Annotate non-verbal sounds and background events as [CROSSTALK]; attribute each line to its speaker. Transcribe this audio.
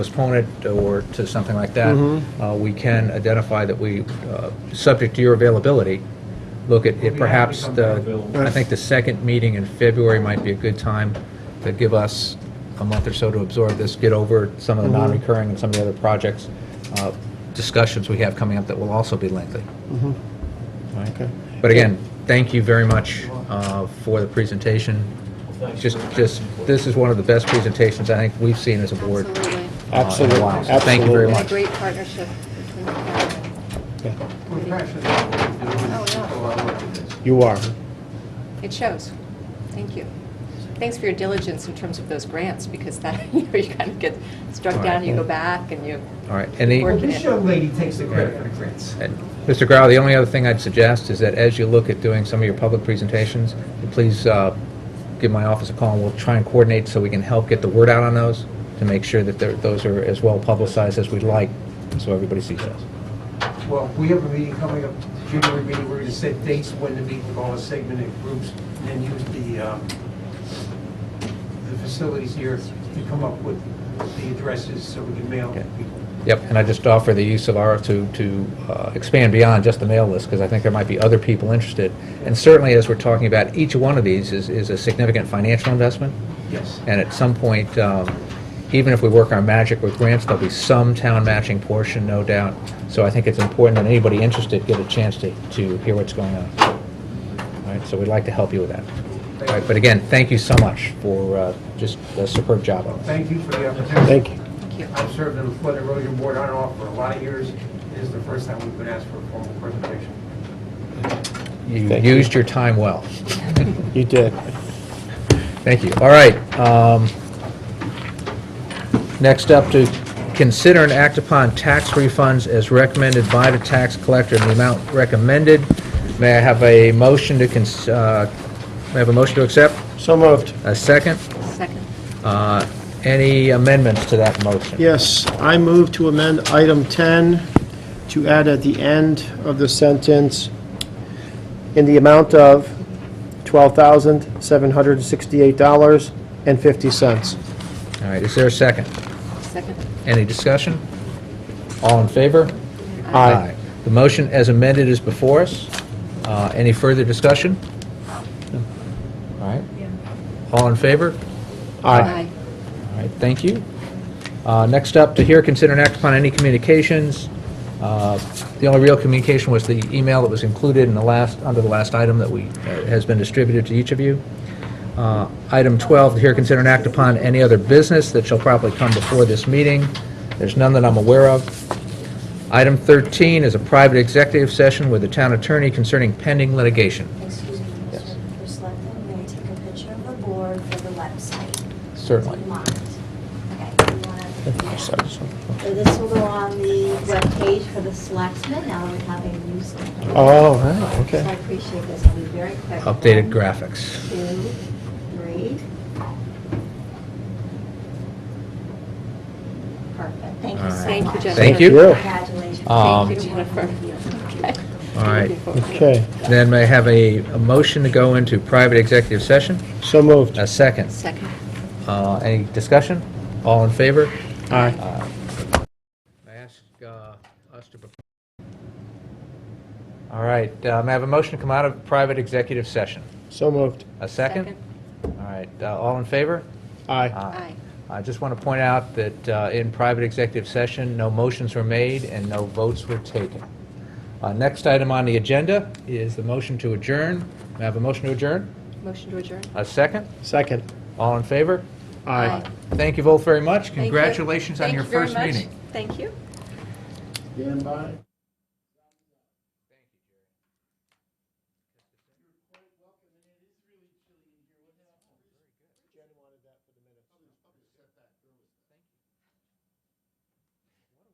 Speaker 1: postpone it or to something like that, uh, we can identify that we, uh, subject to your availability, look at it perhaps the, I think the second meeting in February might be a good time to give us a month or so to absorb this, get over some of the non-recurring and some of the other projects, uh, discussions we have coming up that will also be lengthy. All right? But again, thank you very much uh, for the presentation. Just, just, this is one of the best presentations I think we've seen as a board. uh, in
Speaker 2: Absolutely.
Speaker 1: a
Speaker 3: Absolutely,
Speaker 1: while. So Thank you very
Speaker 3: absolutely.
Speaker 2: Been a
Speaker 1: much.
Speaker 2: great partnership between the departments.
Speaker 3: You are.
Speaker 2: It shows. Thank you. Thanks for your diligence in terms of those grants, because that, [LAUGHS] you know, you kind of get struck
Speaker 1: All
Speaker 2: down,
Speaker 1: right.
Speaker 2: you go back, and you,
Speaker 1: All right, and the-
Speaker 2: Or-
Speaker 4: This young lady takes the credit for the grants.
Speaker 1: and Mr. Grau, the only other thing I'd suggest is that as you look at doing some of your public presentations, please uh, give my office a call, and we'll try and coordinate so we can help get the word out on those, to make sure that they're- those are as well publicized as we'd like, so everybody sees those.
Speaker 4: Well, we have a meeting coming up, January meeting, we're gonna set dates when to meet with all the segmented groups and use the, um, the facilities here to come up with the addresses so we can mail
Speaker 1: Okay.
Speaker 4: people.
Speaker 1: Yep, and I just offer the use of our, to, to uh, expand beyond just the mail list, because I think there might be other people interested. And certainly, as we're talking about, each one of these is, is a significant financial investment,
Speaker 4: Yes.
Speaker 1: and at some point, um, even if we work our magic with grants, there'll be some town matching portion, no doubt. So I think it's important that anybody interested get a chance to, to hear what's going on. All right, so we'd like to help you with that. All right, but again, thank you so much for uh, just a superb job on this.
Speaker 4: Thank you for the opportunity.
Speaker 3: Thank you.
Speaker 2: thank you.
Speaker 4: I've served on the Flood Erosion Board on and off for a lot of years. It is the first time we've been asked for a formal presentation.
Speaker 1: You
Speaker 3: Thank you.
Speaker 1: used your time well.
Speaker 3: You did.
Speaker 1: Thank you. All right. um, Next up, to consider and act upon tax refunds as recommended by the tax collector in the amount recommended. May I have a motion to, cons- uh, may I have a motion to accept?
Speaker 3: So moved.
Speaker 1: A second?
Speaker 2: Second.
Speaker 1: Uh, Any amendments to that motion?
Speaker 3: Yes, I move to amend item 10 to add at the end of the sentence, "in the amount of $12,768.50."
Speaker 1: All right, is there a second?
Speaker 2: Second.
Speaker 1: Any discussion? All in favor?
Speaker 3: Aye.
Speaker 1: The motion as amended is before us. Uh, Any further discussion? All right. All in favor?
Speaker 3: Aye.
Speaker 1: All right, thank you. Uh, Next up, to hear, consider, and act upon any communications. Uh, The only real communication was the email that was included in the last, under the last item that we, uh, has been distributed to each of you. Uh, Item 12, to hear, consider, and act upon any other business that shall properly come before this meeting. There's none that I'm aware of. Item 13 is a private executive session with the town attorney concerning pending litigation.
Speaker 5: Excuse me, Mr. Mr. Selectman, may I take a picture of the board for the website?
Speaker 1: Certainly.
Speaker 5: Do you mind? Okay, you wanna- So this will go on the webpage for the selectmen, now we have a new selectman.
Speaker 3: Oh, right,
Speaker 5: So I
Speaker 3: okay.
Speaker 5: appreciate this, I'll be very quick.
Speaker 1: Updated
Speaker 5: One,
Speaker 1: graphics.
Speaker 5: Two, three. Perfect, thank you
Speaker 1: All
Speaker 5: so much.
Speaker 1: right.
Speaker 2: Thank you, Jennifer.
Speaker 1: Thank you.
Speaker 5: Congratulations.
Speaker 1: Um,
Speaker 5: Thank you, Jennifer.
Speaker 1: [LAUGHS]
Speaker 2: Okay.
Speaker 1: All right.
Speaker 3: Okay,
Speaker 1: Then may I have a a motion to go into private executive session?
Speaker 3: so moved.
Speaker 1: A second.
Speaker 2: Second.
Speaker 1: Uh, Any discussion? All in favor?
Speaker 3: Aye.
Speaker 1: I ask uh, us to... All right, uh, may I have a motion to come out of private executive session?
Speaker 3: So moved.
Speaker 1: A second? All right, uh, all in favor? Uh,
Speaker 3: Aye.
Speaker 2: Aye.
Speaker 1: I just want to point out that uh, in private executive session, no motions were made and no votes were taken. Uh, Next item on the agenda is the motion to adjourn. May I have a motion to adjourn?
Speaker 2: Motion to adjourn.
Speaker 1: A second?
Speaker 3: Second.
Speaker 1: All in favor?
Speaker 2: Aye.
Speaker 1: Thank you both very much.
Speaker 2: Thank you.
Speaker 1: Congratulations on
Speaker 2: Thank
Speaker 1: your
Speaker 2: you very
Speaker 1: first
Speaker 2: much.
Speaker 1: meeting.
Speaker 2: Thank you.
Speaker 3: Stand by.